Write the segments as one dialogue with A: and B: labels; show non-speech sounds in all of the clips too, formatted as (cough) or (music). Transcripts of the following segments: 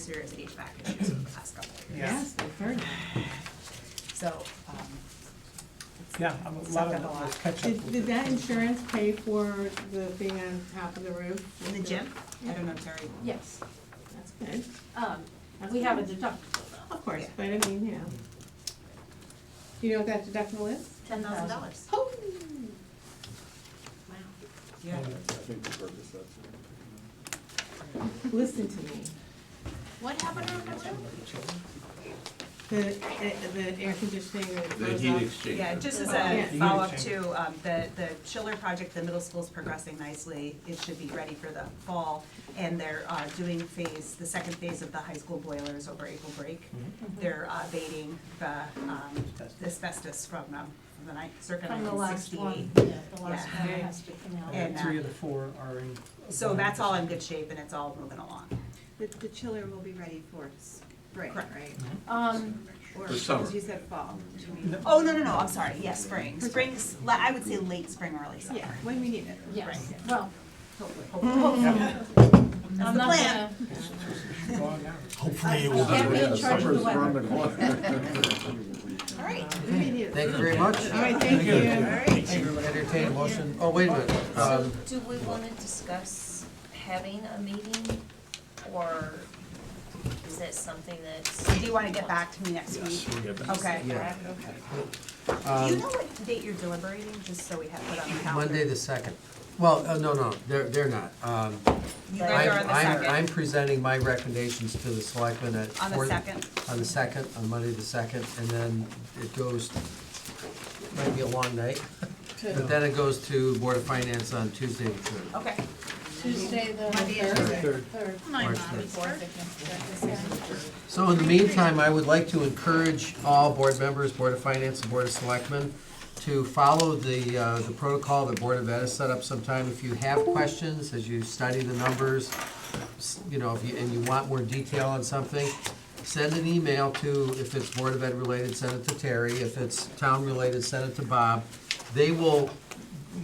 A: serious HVAC issues over the past couple of years.
B: Yes, we've heard that.
A: (sighs) So, um, it's
C: Yeah, I'm a
A: sucked up
C: lot of
A: a lot.
C: catch up.
B: Did,
C: with
B: did
C: it.
B: that insurance pay for the being on top of the roof?
A: In the gym, I don't know, Terry.
D: Yes,
B: That's good,
D: um, we have a deductible though,
B: of course,
A: Yeah.
B: but I mean, yeah. Do you know what that deductible is?
A: Ten thousand dollars.
B: Oh.
D: wow.
A: Yeah.
E: I think the purpose of it.
B: Listen to me,
D: What happened over the roof?
B: the, eh, the air conditioning that
F: The
B: goes
F: heat
B: off-
F: exchanger.
A: Yeah, just as
B: Yeah.
A: a follow-up to, um, the, the chiller project, the middle school's progressing nicely. It should be ready for the fall. And they're, uh, doing phase, the second phase of the high school boilers over April break.
C: Mm-hmm.
A: They're uh, abating the, um, the asbestos from, um, from the night, circa
D: From the
A: nineteen
D: last
A: sixty-eight.
D: one, yeah, the last
A: Yeah.
D: one that has to come out.
C: Yeah,
A: and, uh,
C: Three of the four are in.
A: So that's all in good shape and it's all moving along.
G: The, the chiller will be ready for spring,
A: Correct.
G: right?
D: Um,
G: Or,
F: For summer.
G: because you said fall, do you mean?
A: Oh, no, no, no, I'm sorry, yes, spring. Spring's, la- I would say late spring, early summer.
G: Yeah, when we need it.
D: yes, well,
A: Hopefully, hopefully.
D: I'm not
A: plan.
D: gonna,
C: Gone now.
H: Hopefully it
D: you
H: will be.
D: can't be in charge of the
E: Summer's around
D: weather.
E: the corner.
A: All right.
B: We need it.
H: Thank you very much.
B: All right, thank you.
A: All right.
H: Entertain a motion, oh, wait a minute,
I: So
H: um,
I: do we want to discuss having a meeting, or is that something that's?
A: Do you want to get back to me next week? Okay.
H: yeah.
A: Do you
H: Um,
A: know what date you're deliberating, just so we have it on the calendar?
H: Monday the second, well, uh, no, no, they're, they're not. Um,
A: You guys
H: I'm-
A: are on the
H: I'm- I'm
A: second.
H: presenting my recommendations to the selectmen at.
A: On the
H: four-
A: second?
H: On the second, on Monday the second, and then it goes, might be a long night, but then it goes to Board of Finance on Tuesday the third.
A: Okay.
D: Tuesday, the
E: Third.
D: third, third.
H: March third.
D: Fourth.
H: So in the meantime, I would like to encourage all board members, Board of Finance, and Board of Selectmen, to follow the, uh, the protocol that Board of Ed has set up sometime. If you have questions, as you study the numbers, s- you know, if you, and you want more detail on something, send an email to, if it's Board of Ed related, send it to Terry. If it's town related, send it to Bob. They will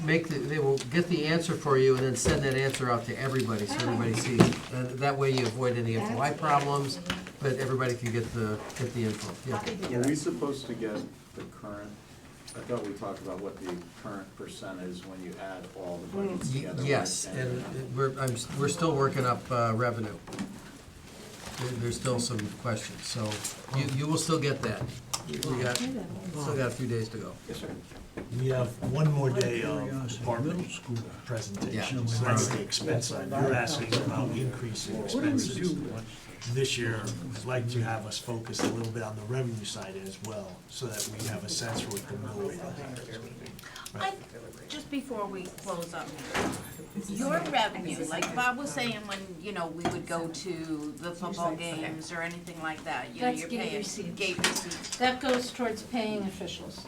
H: make, the- they will get the answer for you and then send that answer out to everybody, so everybody sees. it. And that way you avoid any FOI problems, but everybody can get the, get the info. Yeah.
D: (laughs)
E: Were we supposed to get the current, I thought we talked about what the current percent is when you add all the budgets
H: Y-
E: together?
H: Mm, Yes,
E: right?
H: and it- we're, I'm, s- we're still working up uh, revenue. There- There's still some questions, so you, you will still get that. We got, still got a few days to go.
E: Yes, sir.
H: We have one more day
J: of department school presentations,
H: Yeah.
J: that's the expense side. You're asking about increasing expenses. This year, I'd like to have us focus a little bit on the revenue side as well, so that we have a sense for what the mill rate is.
D: I, just before we close up, your revenue, like uh, Bob was saying, when, you know, we would go to the football games or anything like that, you know,
I: That's
D: you're
I: gate
D: paying.
I: receipts.
D: Gate receipts. That goes towards paying officials.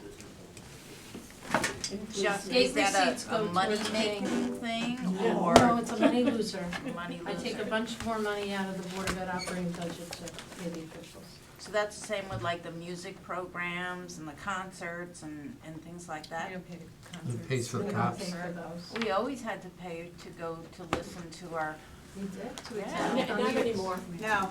B: Just-
D: Is that a, a money-making thing, or?
K: No, it's a money loser.
D: Money
K: I take a
D: loser.
K: bunch more money out of the Board of Ed operating budget to pay the officials.
D: So that's the same with like the music programs and the concerts and, and things like that?
H: It pays for
K: We
H: the
K: don't
H: cops.
K: pay for those.
D: We always had to pay to go to listen to our,
K: We did?
D: yeah.
K: Not anymore.
A: No. Uh,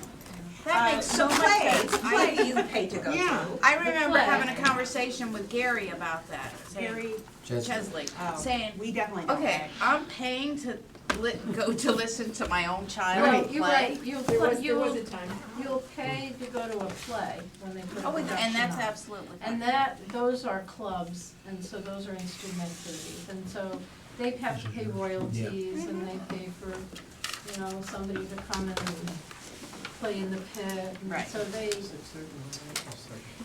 D: That makes so much sense.
A: Play, play you pay to go to.
B: Yeah.
D: I remember
K: play.
D: having a conversation with Gary about that, Gary
A: Very,
H: Jessica,
D: Chesley,
A: um,
D: saying,
A: we definitely don't
D: okay,
A: pay.
D: I'm paying to li- go to listen to my own child
K: No,
D: play.
K: you're right, you'll,
B: There was, there was a
K: you'll,
B: time.
K: you'll pay to go to a play when they put a
D: Oh, and
K: production
D: and that's
K: on.
D: absolutely.
K: And that, those are clubs, and so those are instrument fees, and so they have to pay royalties, and they pay for, you know, somebody to come and play in the pit, and
D: Right.
K: so they,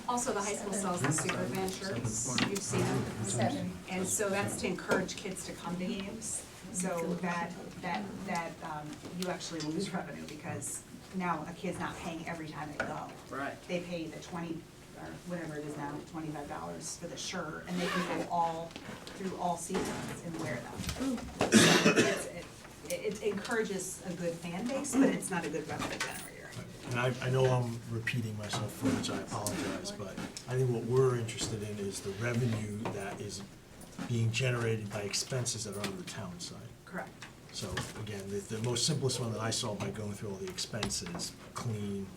A: Also, the high school sells the Superman shirts, you've seen them. Seven. And so that's to encourage kids to come to games, so that, that, that, um, you actually lose revenue, because now a kid's not paying every time they go.
D: Right.
A: They pay the twenty, or whatever it is now, twenty-five dollars for the shirt, and they can go all, through all seasons and wear them. So it's- it- It encourages a good fan base, but it's not a good revenue generator.
J: And I, I know I'm repeating myself, for which I apologize, but I think what we're interested in is the revenue that is being generated by expenses that are on the town side.
A: Correct.
J: So again, the, the most simplest one that I saw by going through all the expenses, clean,